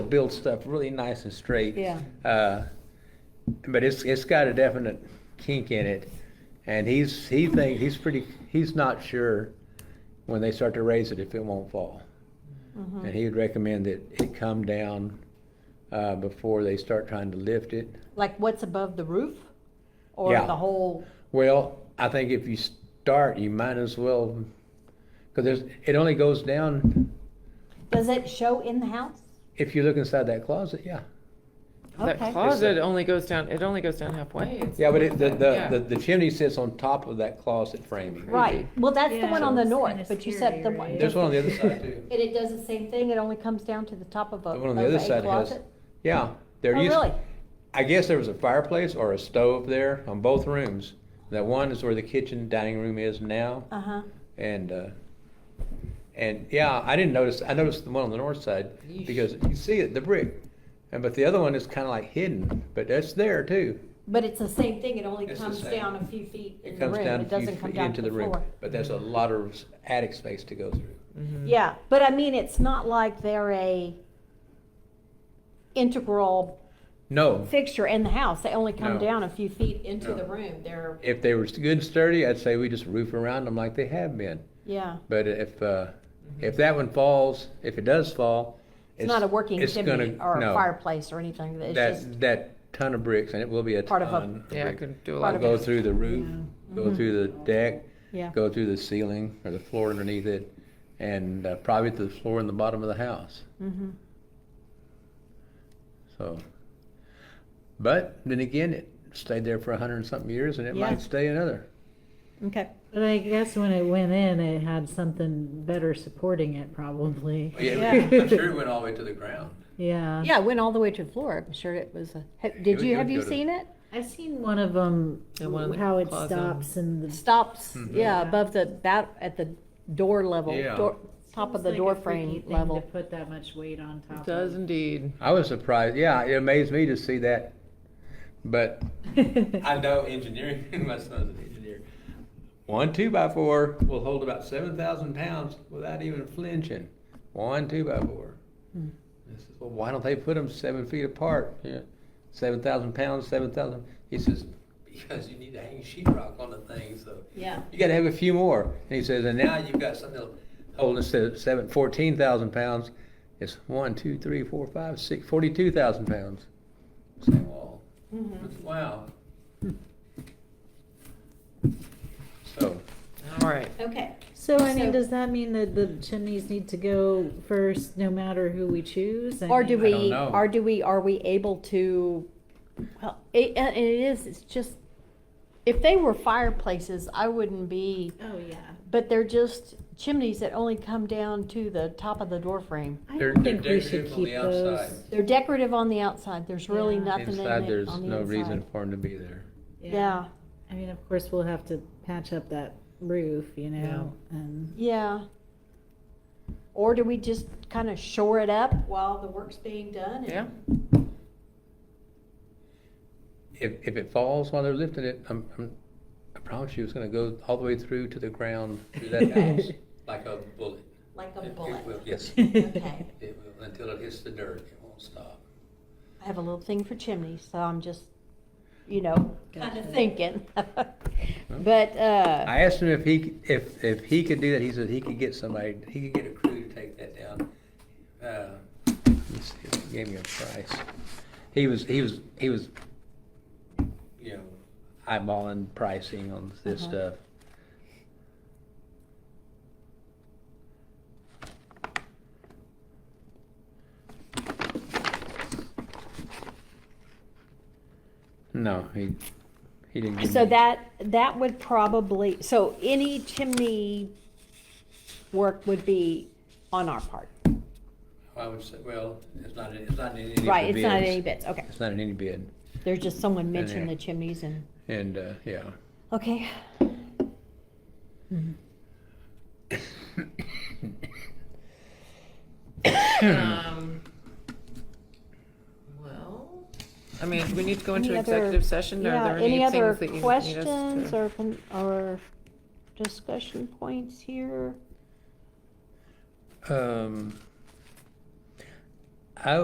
build stuff really nice and straight. Yeah. Uh, but it's, it's got a definite kink in it. And he's, he thinks, he's pretty, he's not sure when they start to raise it if it won't fall. And he would recommend that it come down, uh, before they start trying to lift it. Like what's above the roof? Or Yeah. the whole, Well, I think if you start, you might as well, cause there's, it only goes down, does it show in the house? if you look inside that closet, yeah. That Okay. closet only goes down, it only goes down halfway. It's- Yeah, but it, the, the, Yeah. the- the chimney sits on top of that closet framing. Right, well, that's the Yeah. one on the So- north, Kinda but you said the scary, one. right? There's one on the other side too. And it does the same thing, it only comes down to the top of a, The of one on a the other closet? side has, yeah, there Oh, used, really? I guess there was a fireplace or a stove there on both rooms. That one is where the kitchen dining room is now, Uh-huh, and, uh, and, yeah, I didn't notice, I noticed the one on the north side, Yeesh. because you see it, the brick. And, but the other one is kinda like hidden, but that's there too. but it's the same thing, it only It's the comes same. down a few feet in It the comes room, down it a few doesn't come feet down to into the the room, floor. but there's a lot of attic space to go through. Yeah, but I mean, it's not like they're a integral No, fixture in the house, they only come No. down a few feet into No. the room, they're, if they were good and sturdy, I'd say we just roof around them like they have been. yeah. But if, uh, if that one falls, if it does fall. Mm-hmm. It's not a working it's chimney gonna- or a no. fireplace or anything, it's just. That, that ton of bricks, and it will be a Part ton of a- of Yeah, I brick. could do a Part lot It'll of Go it. through the roof, go through the deck, Mm-hmm. Yeah. go through the ceiling or the floor underneath it, and uh, probably to the floor in the bottom of the house. Mhm. So, but then again, it stayed there for a hundred and something years, and it Yeah. might stay another. Okay. But I guess when it went in, it had something better supporting it, probably. Yeah. Oh, I'm sure it went all the way to the ground. Yeah. Yeah, it went all the way to the floor. I'm sure it was a, ha- It did would- you, it have would you go to- seen it? I've seen one of them, And one in the how it closet. stops and the. Stops, yeah, Yeah. above the, bat, at the door level, Mm-hmm. Yeah. door, top of Seems the like door a freaky frame thing To level. put that much weight on top It of. does indeed. I was surprised. Yeah, it amazed me to see that. But does. I know engineering, my son's an engineer. One two by four will hold about seven thousand pounds without even flinching. One two by four. I says, well, why don't they put them seven feet apart? Yeah, seven thousand pounds, seven thousand. He says, because you need to hang sheet rock on the thing, so Yeah. you gotta have a few more. And he says, and now you've got something that'll hold instead of seven, fourteen thousand pounds, it's one, two, three, four, five, six, forty-two thousand pounds. Same wall. mm-hmm, Wow. So, All right. Okay. So I mean, So- does that mean that the chimneys need to go first, no matter who we choose? I Or do mean- I don't we, know. or do we, are we able to, well, it, and it is, it's just, if they were fireplaces, I wouldn't be, Oh, yeah. but they're just chimneys that only come down to the top of the door frame. I They're- don't they're think we should decorative on the keep outside. those. They're decorative on the outside. There's really Yeah. nothing in it on inside, the there's no reason inside. for him to be there. Yeah, I mean, of course, we'll have to patch up that roof, you know, and yeah. Or do we just kind of shore it up while the work's being done? and- Yeah. If, if it falls while they're lifting it, I'm, I'm, I promise you, it's gonna go all the way through to the ground, through that house, like a bullet. Like a It- it bullet. will- Yes, Okay. it will, until it hits the dirt, it won't stop. I have a little thing for chimneys, so I'm just, you know, kind of thinking. But, uh, I asked him if he, c- if, if he could do that, he said he could get somebody, he could get a crew to take that down. Uh, let's see if he Gave me a price. He was, he was, he was, you know, eyeballing pricing on this Uh-huh. stuff. No, he, he didn't. give so me- that, that would probably, so any chimney work would be on our part. I would say, well, it's not, it's not in any of the Right, it's not bids. any bits, okay. It's not in any bid, There's just someone mentioned yeah. the chimneys and, and, uh, yeah. okay. Um, Well, I mean, do we need to go into Any other- executive session? Are yeah, there any other things that you need us questions to? or, con- or discussion points here? Um,